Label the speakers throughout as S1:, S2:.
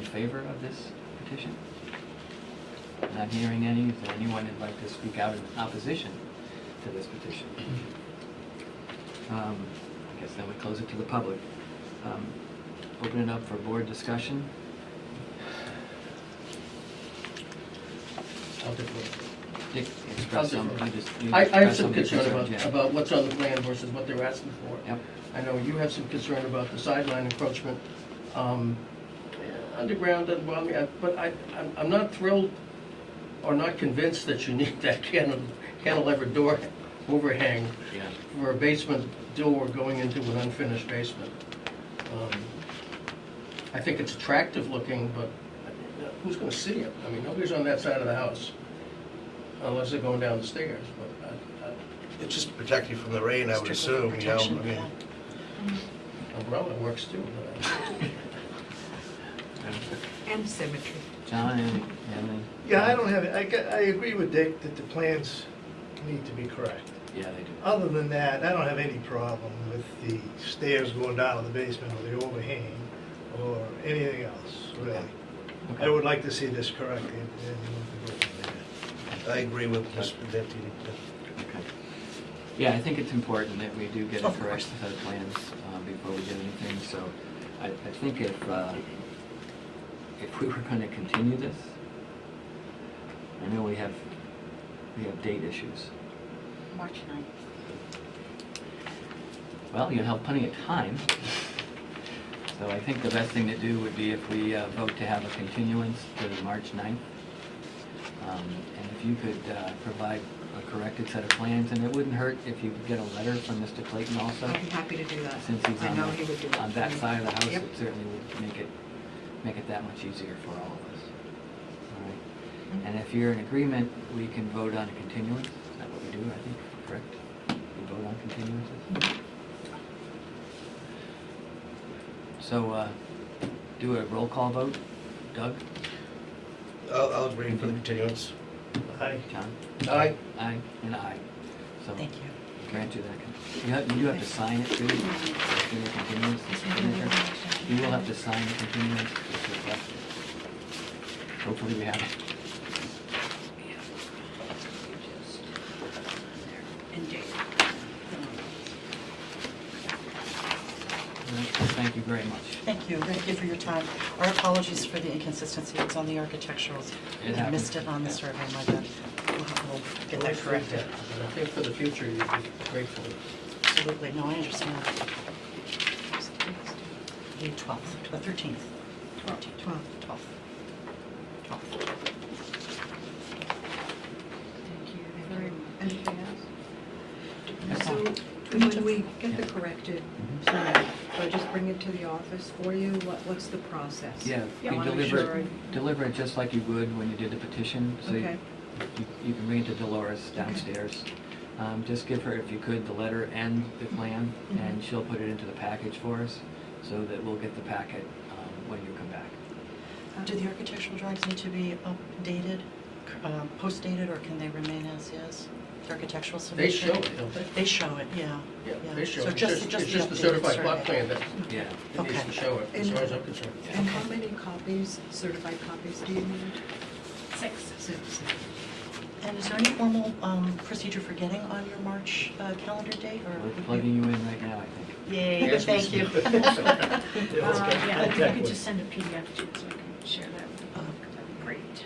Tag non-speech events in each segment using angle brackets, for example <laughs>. S1: favor of this petition? Not hearing any, is there anyone who'd like to speak out in opposition to this petition? Um, I guess then we close it to the public. Um, Open it up for board discussion.
S2: I'll defer.
S1: Dick, express some, you just. you
S2: I, I have
S1: express
S2: some concern
S1: concerns,
S2: about,
S1: yeah.
S2: about what's on the plan versus what they're asking for.
S1: Yep,
S2: I know you have some concern about the sideline encroachment, um, eh, underground doesn't bother me, I- but I, I'm, I'm not thrilled or not convinced that you need <laughs> that cantil- cantilever door <laughs> overhang
S1: yeah.
S2: <laughs> for a basement door going into an unfinished basement. Um, I think it's attractive looking, but uh, who's gonna see it? I mean, nobody's on that side of the house, unless they're going down the stairs, but I- I-
S3: It's just to protect you from the rain, I would assume, you know, I mean,
S2: umbrella works too. but I-
S4: And symmetry.
S1: John, any- any?
S5: Yeah, I don't have, it. I, got- I agree with Dick that the plans need to be correct.
S1: Yeah, they do.
S5: Other than that, I don't have any problem with the stairs going down to the basement or the overhang or anything else, really. I would like to see this corrected and go from there.
S3: I agree with Mr. Deputy.
S1: Okay. Yeah, I think it's important that we do get a
S3: Of
S1: correct set of plans uh, before we do anything, so I, I think if, uh, if we were gonna continue this, I know we have, we have date issues.
S4: March 9th.
S1: Well, you have plenty of time. So I think the best thing to do would be if we uh, vote to have a continuance to March 9th. Um, And if you could uh, provide a corrected set of plans, and it wouldn't hurt if you could get a letter from Mr. Clayton also,
S4: I'd be happy to do that.
S1: since he's
S4: I
S1: on,
S4: know he would do
S1: the-
S4: that.
S1: on
S4: for
S1: that
S4: me.
S1: side of the house,
S4: Yep.
S1: it certainly would make it, make it that much easier for all of us. All
S4: Mm-hmm.
S1: right. And if you're in agreement, we can vote on a continuance. Is that what we do, I think, correct? We vote on continuances?
S4: Mm-hmm.
S1: So, uh, do a roll call vote. Doug?
S3: I'll, I'll agree for the continuance.
S5: Aye.
S1: John?
S2: I,
S1: Aye, and aye. So
S4: Thank you.
S1: grant you that. con- You have, you do have to sign it too. Give me a continuance, the signature. You will have to sign the continuance. that's requested. Hopefully we have it.
S4: And Dave.
S1: Thank you very much.
S6: Thank you, thank you for your time. Our apologies for the inconsistency, it's on the architecturals.
S1: It
S6: I
S1: happens.
S6: missed it on the survey, my bad. We'll have- We'll get that corrected.
S2: <laughs> But I think for the future, you'd be grateful.
S6: Absolutely, no, I understand. The 12th, the 13th. 12th. 12th. 12th.
S7: Anything else?
S1: That's
S7: So
S1: all.
S7: when we get the
S1: Yeah.
S7: corrected
S1: Mhm.
S7: plan, do I just bring it to the office for you? What, what's the process?
S1: Yeah,
S7: I
S1: you
S7: wanna make
S1: deliver,
S7: sure
S1: it- deliver it just like you would when you did the petition. So you-
S7: Okay.
S1: you- you can bring it to Dolores downstairs. Um, Just give her, if you could, the letter and the plan, and she'll put it into the package for us, so that we'll get the packet um, when you come back.
S7: I-
S6: Do the architectural drawings need to be updated, uh, postdated, or can they remain as is? The architectural
S2: They
S6: submission?
S2: show it, don't they?
S6: They show it, yeah.
S2: Yeah, they show it.
S6: So
S2: It's
S6: just, just
S2: It's just the
S6: updated
S2: certified plot
S6: survey.
S2: plan that
S1: Yeah.
S2: it needs
S6: Okay.
S2: to show it, as
S7: And-
S2: far as I'm concerned.
S7: And how many copies, certified copies do you need? Six. Six.
S6: And is there any formal um, procedure for getting on your March uh, calendar date, or?
S1: We're plugging you in right now, I think.
S6: Yay, thank you.
S1: <laughs>
S8: Uh, Yeah, if you could just send a PDF to us, so I can share that with you.
S6: Oh.
S8: That'd be great.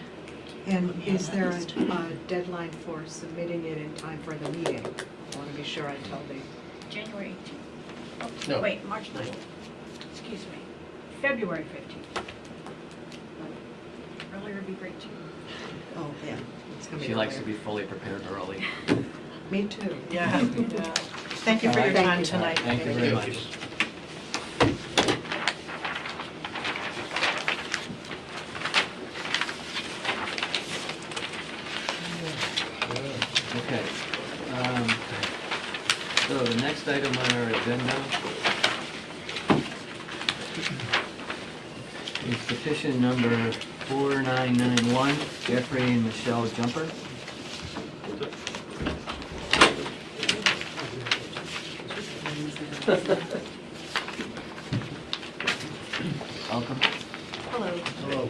S7: And
S6: Yeah,
S7: is there
S6: that's-
S7: a a deadline for submitting it in time for the meeting? I want to be sure I tell the,
S8: January 18th.
S2: No.
S8: Oh, wait, March 9th. Excuse me. February 15th. Earlier would be great, too.
S6: <laughs> Oh, yeah.
S7: it's coming
S1: She likes to be
S7: earlier.
S1: fully prepared early.
S7: Me too.
S6: Yeah. yeah. Thank you for your
S1: All right.
S6: time
S7: Thank you.
S6: tonight.
S1: Thank you very much. Okay. um, So the next item on our agenda is petition number 4991, Jeffrey and Michelle Jumper. Welcome.